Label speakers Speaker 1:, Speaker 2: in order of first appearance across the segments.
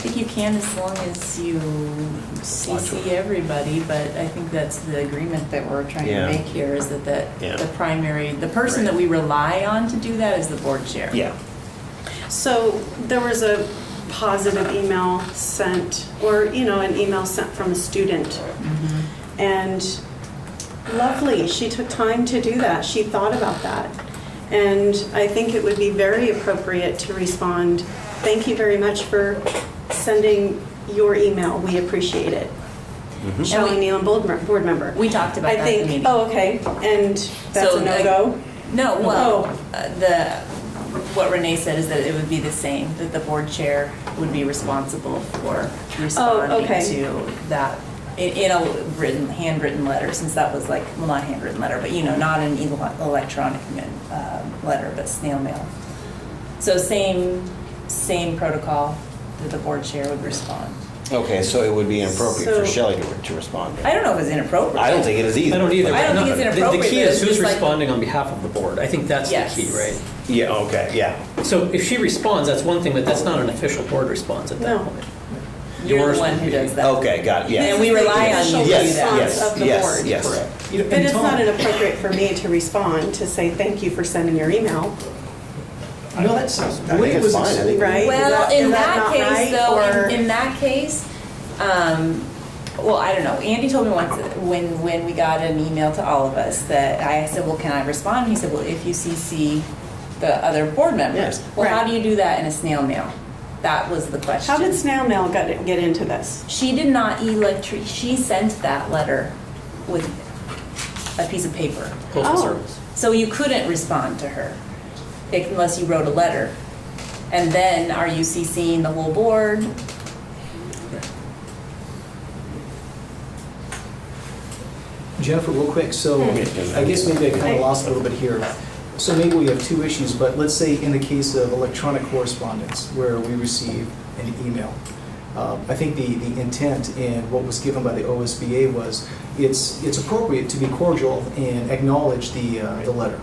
Speaker 1: think you can as long as you CC everybody, but I think that's the agreement that we're trying
Speaker 2: Yeah.
Speaker 1: to make here, is that
Speaker 2: Yeah.
Speaker 1: that the primary, the person that
Speaker 2: Right.
Speaker 1: we rely on to do that is the board chair.
Speaker 2: Yeah.
Speaker 3: So there was a positive email sent, or, you know, an email sent from a student.
Speaker 1: Mm-hmm.
Speaker 3: And lovely, she took time to do that. She thought about that. And I think it would be very appropriate to respond, thank you very much for sending your email. We appreciate it.
Speaker 2: Mm-hmm.
Speaker 3: Shelley Nealon, board mem- board member.
Speaker 1: We talked about
Speaker 3: I
Speaker 1: that at the
Speaker 3: think,
Speaker 1: meeting.
Speaker 3: oh, okay, and that's
Speaker 1: So,
Speaker 3: a
Speaker 1: like,
Speaker 3: no-go?
Speaker 1: No, well,
Speaker 3: Oh.
Speaker 1: uh, the, what Renee said is that it would be the same, that the board chair would be responsible for responding
Speaker 3: Oh, okay.
Speaker 1: to that in, in a written, handwritten letter, since that was like, well, not handwritten letter, but you know, not an ele- electronic um, letter, but snail mail. So same, same protocol that the board chair would respond.
Speaker 2: Okay, so it would be inappropriate for
Speaker 3: So-
Speaker 2: Shelley to, to respond.
Speaker 1: I don't know if it's inappropriate.
Speaker 2: I don't think it is either.
Speaker 4: I don't either.
Speaker 1: I don't think
Speaker 4: No,
Speaker 1: it's
Speaker 4: the-
Speaker 1: inappropriate,
Speaker 4: The key
Speaker 1: but it's
Speaker 4: is who's
Speaker 1: just like-
Speaker 4: responding on behalf of the board. I think that's the
Speaker 1: Yes.
Speaker 4: key, right?
Speaker 2: Yeah, okay, yeah.
Speaker 4: So if she responds, that's one thing, but that's not an official board response at
Speaker 3: No.
Speaker 4: that point.
Speaker 1: You're
Speaker 4: Yours
Speaker 1: the one
Speaker 4: would
Speaker 1: who
Speaker 4: be-
Speaker 1: does that.
Speaker 2: Okay, got it, yeah.
Speaker 1: And we rely on you to do
Speaker 2: Yes,
Speaker 1: that.
Speaker 2: yes,
Speaker 3: Response of the
Speaker 2: yes,
Speaker 3: board.
Speaker 2: Yes,
Speaker 4: Correct.
Speaker 2: You know,
Speaker 3: But
Speaker 2: and
Speaker 3: it's
Speaker 2: Tom-
Speaker 3: not inappropriate for me to respond, to say, thank you for sending your email,
Speaker 5: No, that's, the
Speaker 2: I
Speaker 5: way
Speaker 2: think
Speaker 5: it
Speaker 2: it's
Speaker 5: was
Speaker 2: fine. I think-
Speaker 3: right? Is
Speaker 1: Well, in
Speaker 3: is
Speaker 1: that
Speaker 3: not
Speaker 1: case,
Speaker 3: right,
Speaker 1: though,
Speaker 3: or-
Speaker 1: in- in that case, um, well, I don't know. Andy told me once, that when, when we got an email to all of us, that I said, well, can I respond? He said, well, if you CC the other board members.
Speaker 2: Yes.
Speaker 1: Well, how
Speaker 3: Right.
Speaker 1: do you do that in a snail mail? That was the question.
Speaker 3: How did snail mail get, get into this?
Speaker 1: She did not electric, she sent that letter with a piece of paper.
Speaker 4: Postal
Speaker 3: Oh.
Speaker 4: service.
Speaker 1: So you couldn't respond to her unless you wrote a letter. And then are you CCing the whole board?
Speaker 5: Jennifer, real quick, so
Speaker 2: Hmm.
Speaker 5: I guess maybe I kind of lost a little bit here. So maybe we have two issues, but let's say in the case of electronic correspondence where we receive an email. um, I think the, the intent in what was given by the OSBA was it's, it's appropriate to be cordial and acknowledge the, uh, the letter.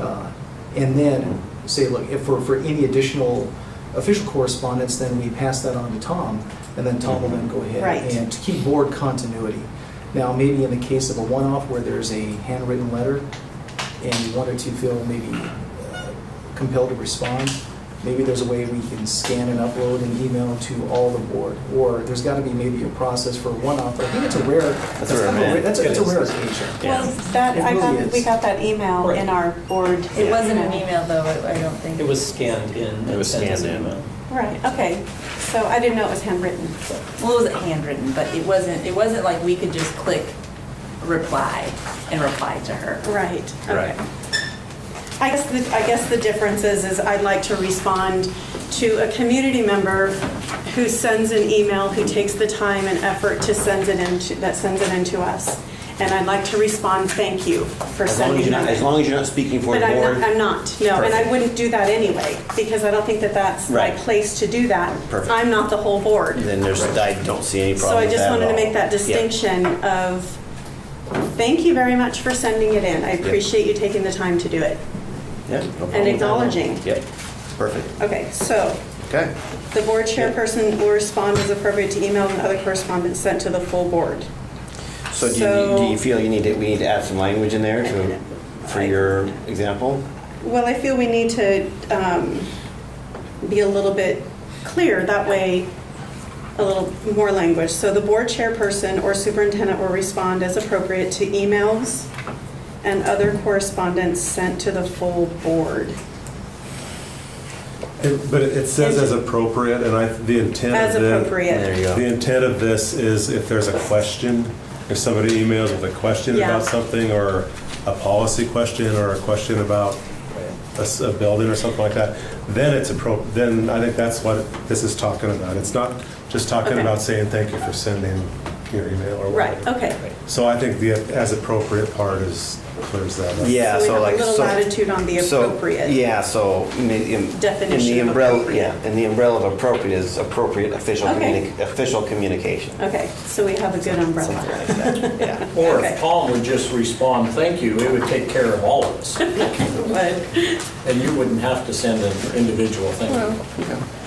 Speaker 5: Uh, And then say, look, if for, for any additional official correspondence, then we pass that on to Tom and then Tom will then go ahead
Speaker 3: Right.
Speaker 5: and to keep board continuity. Now, maybe in the case of a one-off where there's a handwritten letter and one or two feel maybe uh, compelled to respond, maybe there's a way we can scan and upload an email to all the board. Or there's got to be maybe a process for one-off, but I think it's a rare, that's
Speaker 2: a rare
Speaker 5: kind of
Speaker 2: event.
Speaker 5: that's a- that's a
Speaker 4: It is.
Speaker 5: rare occasion.
Speaker 2: Yeah.
Speaker 3: Well, that,
Speaker 5: It
Speaker 3: I
Speaker 5: really
Speaker 3: got, we
Speaker 5: is.
Speaker 3: got that email
Speaker 4: Right.
Speaker 3: in our board.
Speaker 1: It wasn't an email though, I I don't think.
Speaker 4: It was scanned in. and
Speaker 2: It was
Speaker 4: sent as
Speaker 2: scanned
Speaker 4: an
Speaker 2: in.
Speaker 4: email.
Speaker 3: Right, okay, so I didn't know it was handwritten.
Speaker 1: Well, it wasn't handwritten, but it wasn't, it wasn't like we could just click reply and reply to her.
Speaker 3: Right,
Speaker 2: Right.
Speaker 3: okay. I guess, the- I guess the difference is, is I'd like to respond to a community member who sends an email, who takes the time and effort to send it into, that sends it into us. And I'd like to respond, thank you for
Speaker 2: As long as
Speaker 3: sending
Speaker 2: you're not, as
Speaker 3: that.
Speaker 2: long as you're not speaking for
Speaker 3: But
Speaker 2: the
Speaker 3: I'm
Speaker 2: board.
Speaker 3: not, I'm not, no, and I
Speaker 2: Perfect.
Speaker 3: wouldn't do that anyway, because I don't think that that's my
Speaker 2: Right.
Speaker 3: place to do that.
Speaker 2: Perfect.
Speaker 3: I'm not the whole board.
Speaker 2: Then there's, I don't see any
Speaker 3: So
Speaker 2: problem
Speaker 3: I
Speaker 2: with that
Speaker 3: just wanted
Speaker 2: at
Speaker 3: to
Speaker 2: all.
Speaker 3: make that
Speaker 2: Yeah.
Speaker 3: distinction of, thank you very much for sending it in. I appreciate you taking the time to do it.
Speaker 2: Yeah, no problem
Speaker 3: And
Speaker 2: with that at all.
Speaker 3: acknowledging.
Speaker 2: Yep, perfect.
Speaker 3: Okay, so
Speaker 2: Okay.
Speaker 3: the board chairperson will respond as appropriate to email and other correspondence sent to the full board.
Speaker 2: So do you,
Speaker 3: So-
Speaker 2: do you feel you need to, we need to add some language in there to, for your example?
Speaker 3: Well, I feel we need to um, be a little bit clear, that way, a little more language. So the board chairperson or superintendent will respond as appropriate to emails and other correspondence sent to the full board.
Speaker 6: It- But it it says as appropriate, and I, the intent of
Speaker 3: As
Speaker 6: the...
Speaker 2: There you
Speaker 3: appropriate.
Speaker 2: go.
Speaker 6: The intent of this is if there's a question, if somebody emails with a question
Speaker 3: Yeah.
Speaker 6: about something, or a policy question, or a question about a s- a building or something like that, then it's appro, then I think that's what this is talking about. It's not just talking
Speaker 3: Okay.
Speaker 6: about saying thank you for sending your email or
Speaker 3: Right,
Speaker 6: whatever.
Speaker 3: okay.
Speaker 6: So I think the as appropriate part is, clears that up.
Speaker 2: Yeah,
Speaker 3: we
Speaker 2: so
Speaker 3: have a
Speaker 2: like.
Speaker 3: little
Speaker 2: so-
Speaker 3: latitude on the
Speaker 2: so,
Speaker 3: appropriate.
Speaker 2: Yeah, so. in the- in-
Speaker 3: Definition
Speaker 2: In the
Speaker 3: of
Speaker 2: umbrella,
Speaker 3: appropriate.
Speaker 2: yeah, in the umbrella of appropriate is appropriate official,
Speaker 3: Okay.
Speaker 2: communi- official communication.
Speaker 3: Okay, so we have a good umbrella.
Speaker 2: Something like that, yeah.
Speaker 7: Or if
Speaker 3: Okay.
Speaker 7: Tom would just respond, thank you, it would take care of all of us.
Speaker 3: But-
Speaker 7: And you wouldn't have to send an individual thank you.